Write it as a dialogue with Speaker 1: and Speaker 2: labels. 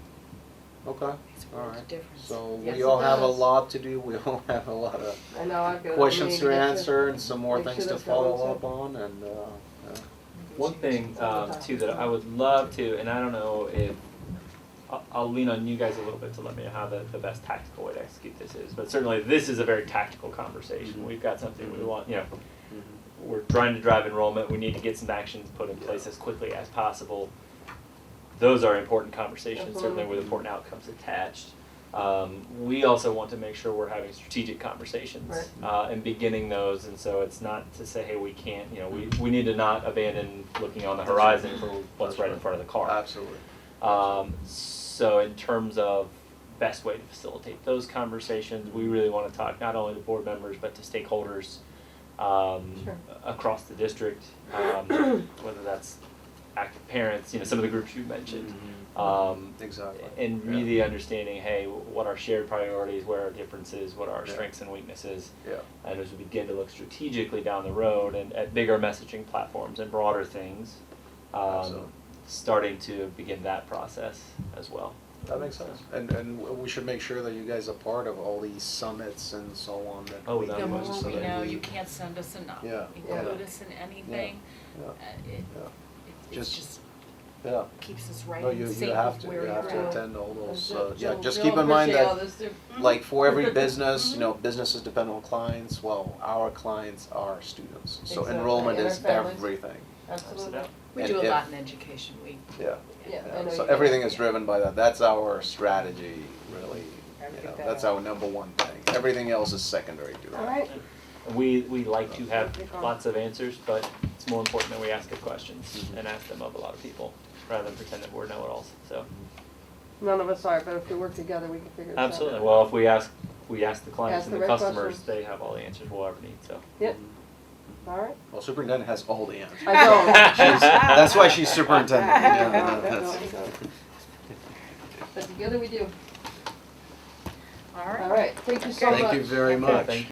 Speaker 1: Okay,
Speaker 2: Makes
Speaker 1: all
Speaker 2: a world of
Speaker 1: right.
Speaker 2: difference.
Speaker 1: So
Speaker 3: Yes,
Speaker 1: we
Speaker 3: it
Speaker 1: all have a
Speaker 3: does.
Speaker 1: lot to do, we all have a lot of
Speaker 3: I know I've got. I
Speaker 1: questions
Speaker 3: need
Speaker 1: to
Speaker 3: get you-
Speaker 1: answer and some more
Speaker 3: make sure
Speaker 1: things to
Speaker 3: that's got all
Speaker 1: follow
Speaker 3: set.
Speaker 1: up on and, uh, yeah.
Speaker 4: One thing um, too that I would love to, and I don't know if I'll, I'll lean on you guys a little bit to let me know how the, the best tactical way to execute this is. But certainly, this is a very tactical conversation. We've got something we want. You know, we're trying to drive enrollment. We need to get some actions put in place as quickly as possible. Those are important conversations, certainly with important outcomes attached. Um, we also want to make sure we're having strategic conversations
Speaker 3: Right.
Speaker 4: uh, and beginning those. And so it's not to say, hey, we can't, you know, we, we need to not abandon looking on the horizon for what's
Speaker 1: That's
Speaker 4: right in
Speaker 1: right.
Speaker 4: front of the car.
Speaker 1: Absolutely.
Speaker 4: Um, so in terms of best way to facilitate those conversations, we really want to talk not only to board members but to stakeholders um,
Speaker 3: Sure.
Speaker 4: across the district, um, whether that's active parents, you know, some of the groups you mentioned. Um,
Speaker 1: Mm-hmm. Exactly.
Speaker 4: and
Speaker 1: Yeah.
Speaker 4: really understanding, hey, what our shared priorities, where our differences, what our
Speaker 1: Yeah.
Speaker 4: strengths and weaknesses,
Speaker 1: Yeah,
Speaker 4: and as we begin to look strategically down the road and at bigger messaging platforms and broader things,
Speaker 1: Absolutely.
Speaker 4: um, starting to begin that process as well.
Speaker 1: that makes sense. And, and w- we should make sure that you guys are part of all these summits and so on that.
Speaker 4: Oh,
Speaker 1: we
Speaker 4: without
Speaker 1: do,
Speaker 2: The
Speaker 4: much
Speaker 2: more
Speaker 1: so
Speaker 2: we
Speaker 1: that
Speaker 2: know,
Speaker 1: we-
Speaker 2: you can't send us enough.
Speaker 1: Yeah,
Speaker 2: Include
Speaker 1: yeah.
Speaker 2: us in anything.
Speaker 1: Yeah,
Speaker 2: Uh, It
Speaker 1: yeah,
Speaker 2: it- it
Speaker 1: Just-
Speaker 2: just
Speaker 1: yeah.
Speaker 2: keeps us right
Speaker 1: No, you,
Speaker 2: in
Speaker 1: you
Speaker 2: sync
Speaker 1: have
Speaker 2: with
Speaker 1: to,
Speaker 2: where
Speaker 1: you
Speaker 2: you're
Speaker 1: have
Speaker 2: at.
Speaker 1: to
Speaker 3: at.
Speaker 1: attend all those,
Speaker 3: Jill-
Speaker 1: uh, yeah,
Speaker 3: Jill-
Speaker 1: just
Speaker 3: Jill
Speaker 1: keep in mind
Speaker 3: appreciate
Speaker 1: that
Speaker 3: all this too.
Speaker 1: Mm-hmm. like for every business, you
Speaker 3: Mm-hmm.
Speaker 1: know, businesses depend on clients, well, our clients are students. So
Speaker 3: Exactly,
Speaker 1: enrollment
Speaker 3: and our
Speaker 1: is
Speaker 3: families.
Speaker 1: everything,
Speaker 3: Absolutely.
Speaker 4: Absolutely.
Speaker 2: We
Speaker 1: And
Speaker 2: do a
Speaker 1: if-
Speaker 2: lot in education, we,
Speaker 1: yeah.
Speaker 3: Yeah,
Speaker 1: yeah.
Speaker 3: I know
Speaker 1: So
Speaker 3: you do.
Speaker 1: everything is driven by that, that's our strategy, really,
Speaker 3: I
Speaker 1: you
Speaker 3: get
Speaker 1: know,
Speaker 3: that.
Speaker 1: that's our number one thing, everything else is secondary to that.
Speaker 3: All right.
Speaker 4: And We, we like
Speaker 1: Oh.
Speaker 4: to have lots of answers, but it's more important that we ask good questions
Speaker 1: Mhm.
Speaker 4: and ask them of a lot of people, rather than pretend that we're know-it-alls, so.
Speaker 3: None of us are, but if we work together, we can figure this out.
Speaker 4: Absolutely, well, if we ask, we ask the
Speaker 3: Ask
Speaker 4: clients and
Speaker 3: the
Speaker 4: the
Speaker 3: right
Speaker 4: customers,
Speaker 3: questions.
Speaker 4: they have all the answers we'll ever need, so.
Speaker 3: Yep, all right.
Speaker 1: Well, superintendent has all the answers.
Speaker 3: I don't.
Speaker 1: She's- That's why she's superintendent, yeah,
Speaker 3: I
Speaker 1: no,
Speaker 3: don't, I
Speaker 1: that's-
Speaker 3: don't, I don't. But together we do.
Speaker 2: all right.
Speaker 3: All right, thank you so much.
Speaker 1: Thank you very
Speaker 4: Okay,
Speaker 1: much.
Speaker 4: thank